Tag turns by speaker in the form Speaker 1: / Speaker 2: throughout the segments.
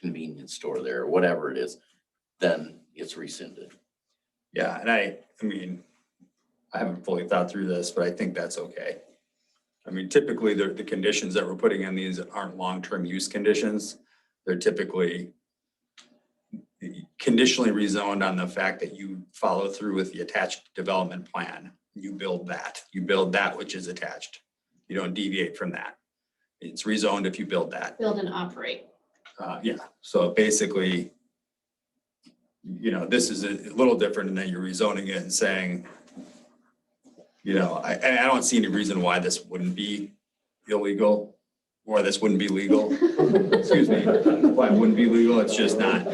Speaker 1: convenience store there, or whatever it is, then it's rescinded.
Speaker 2: Yeah, and I, I mean, I haven't fully thought through this, but I think that's okay. I mean, typically, the, the conditions that we're putting in these aren't long-term use conditions. They're typically conditionally rezoned on the fact that you follow through with the attached development plan. You build that, you build that which is attached. You don't deviate from that. It's rezoned if you build that.
Speaker 3: build and operate.
Speaker 2: Uh, yeah, so basically, you know, this is a little different and then you're rezoning it and saying, you know, I, and I don't see any reason why this wouldn't be illegal or this wouldn't be legal. Excuse me, why it wouldn't be legal, it's just not,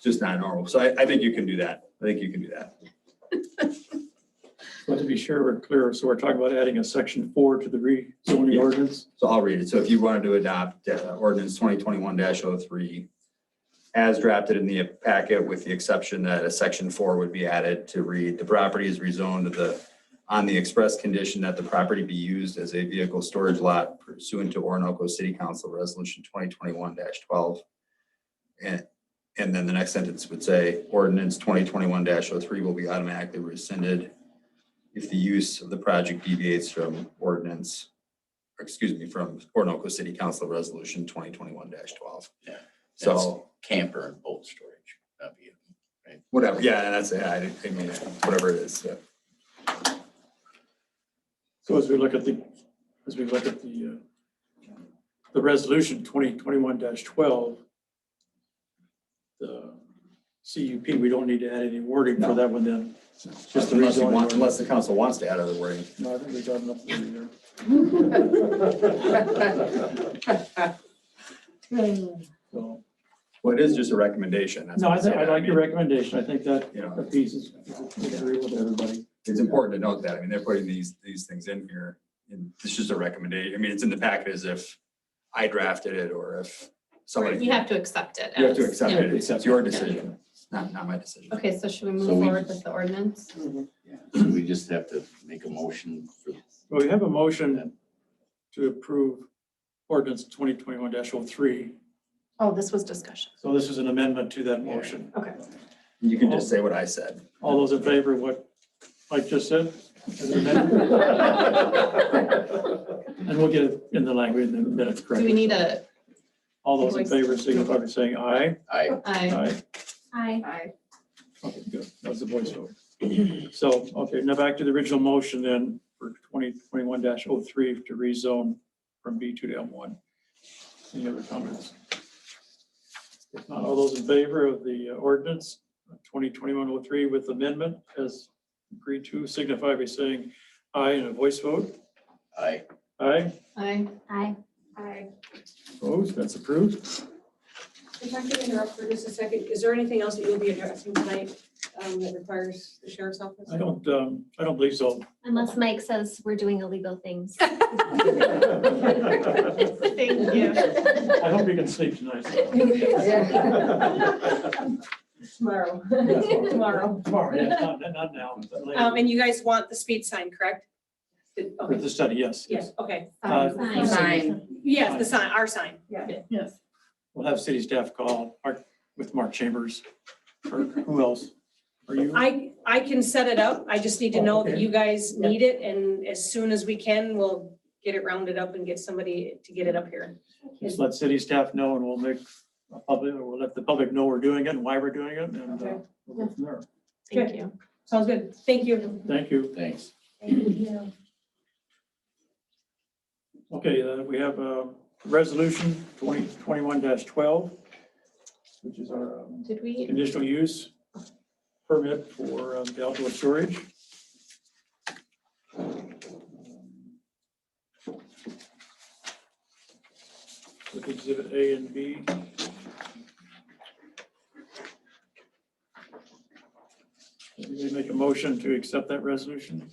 Speaker 2: just not normal. So I, I think you can do that. I think you can do that.
Speaker 4: But to be sure we're clear, so we're talking about adding a section four to the rezoning
Speaker 2: Yeah.
Speaker 4: ordinance?
Speaker 2: So I'll read it. So if you wanted to adopt uh, ordinance twenty twenty-one oh 3 as drafted in the packet with the exception that a section four would be added to read, the property is rezoned to the on the express condition that the property be used as a vehicle storage lot pursuant to Orinoco City Council Resolution twenty twenty-one twelve. And, and then the next sentence would say ordinance twenty twenty-one 3 will be automatically rescinded if the use of the project deviates from ordinance or excuse me, from Orinoco City Council Resolution twenty twenty-one twelve.
Speaker 1: Yeah.
Speaker 2: So,
Speaker 1: Camper and boat storage, that'd be it.
Speaker 2: whatever, yeah, that's, it. I didn't- I mean, whatever it is, yeah.
Speaker 4: So as we look at the, as we look at the, uh, the resolution twenty twenty-one twelve, the CUP, we don't need to add any wording for
Speaker 2: No.
Speaker 4: that one then. Just the
Speaker 2: Unless you
Speaker 4: rezoning
Speaker 2: want,
Speaker 4: ordinance.
Speaker 2: unless the council wants to add other wording.
Speaker 4: No, I think we got enough there there. So,
Speaker 2: Well, it is just a recommendation. that's
Speaker 4: no, I
Speaker 2: what I'm
Speaker 4: think, I
Speaker 2: saying.
Speaker 4: like your
Speaker 2: mean,
Speaker 4: recommendation. I think that
Speaker 2: You know,
Speaker 4: that piece is, is agree with everybody.
Speaker 2: it's important to note that. I mean, they're putting these, these things in here. And it's just a recommendation. I mean, it's in the packet as if I drafted it or if somebody,
Speaker 3: You have to accept it.
Speaker 2: you have to
Speaker 3: as-
Speaker 2: accept
Speaker 3: yeah.
Speaker 2: it. It's it's your decision. It's not, not my decision.
Speaker 3: Okay, so should we
Speaker 1: So
Speaker 3: move
Speaker 1: we-
Speaker 3: forward with the ordinance?
Speaker 2: Mm-hmm.
Speaker 1: So We just have to make a motion for,
Speaker 4: Well, we have a motion to approve ordinance twenty twenty-one 3
Speaker 3: Oh, this was discussion.
Speaker 4: So this is an amendment to that motion.
Speaker 3: Okay.
Speaker 2: You can just say what I said.
Speaker 4: All those in favor of what Mike just said? as an amendment? And we'll get it in the language in the minutes, correct?
Speaker 3: Do we need a,
Speaker 4: All those in favor signify by saying aye.
Speaker 1: I,
Speaker 2: Uh,
Speaker 3: I,
Speaker 4: Aye.
Speaker 5: Aye.
Speaker 4: Okay, good. That was the voiceover. So, okay, now back to the original motion then for twenty twenty-one 3 to rezone from B two to M one. Any other comments? If not, all those in favor of the ordinance twenty twenty-one oh three with amendment as agreed to signify by saying aye in a voice vote.
Speaker 1: I,
Speaker 4: Aye,
Speaker 3: I,
Speaker 5: Aye.
Speaker 6: Hi,
Speaker 4: opposed, that's approved.
Speaker 6: if I could interrupt for just a second, is there anything else that you'll be addressing tonight um, that requires the sheriff's office?
Speaker 4: I don't, um, I don't believe so.
Speaker 5: Unless Mike says we're doing illegal things.
Speaker 4: I
Speaker 3: thank you.
Speaker 4: hope you can sleep tonight.
Speaker 6: Tomorrow.
Speaker 4: Tomorrow. Tomorrow, yeah, not, not now, but
Speaker 6: Um,
Speaker 4: later.
Speaker 6: and you guys want the speed sign, correct? Did-
Speaker 4: For
Speaker 6: Okay,
Speaker 4: the study, yes.
Speaker 6: yes, okay.
Speaker 4: Uh,
Speaker 5: Fine.
Speaker 7: Fine.
Speaker 6: Yes, the sign, our sign. Yeah.
Speaker 3: Yes.
Speaker 4: We'll have city staff call Mark, with Mark Chambers, or who else? Are you?
Speaker 6: I, I can set it up. I just need to know that you guys
Speaker 4: Okay.
Speaker 6: need it and as soon as we can, we'll get it rounded up and get somebody to get it up here.
Speaker 4: Just let city staff know and we'll make a public, or we'll let the public know we're doing it and why we're doing it and uh,
Speaker 6: Okay.
Speaker 4: we'll go from there.
Speaker 3: Thank you.
Speaker 6: Sounds good. Thank you.
Speaker 4: Thank you.
Speaker 1: thanks.
Speaker 4: Okay, uh, we have uh, resolution twenty twenty-one twelve, which is our um,
Speaker 3: Did we,
Speaker 4: conditional use permit for um, the outdoor storage. With exhibit A and B. Anybody make a motion to accept that resolution?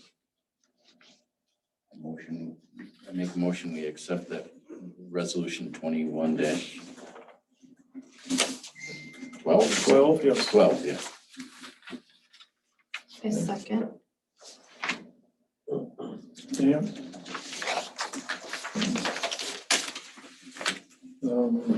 Speaker 1: Motion, I make a motion, we accept that resolution twenty-one dash twelve,
Speaker 4: Twelve, yes.
Speaker 1: twelve, yeah.
Speaker 3: a second?
Speaker 4: Dan? Um,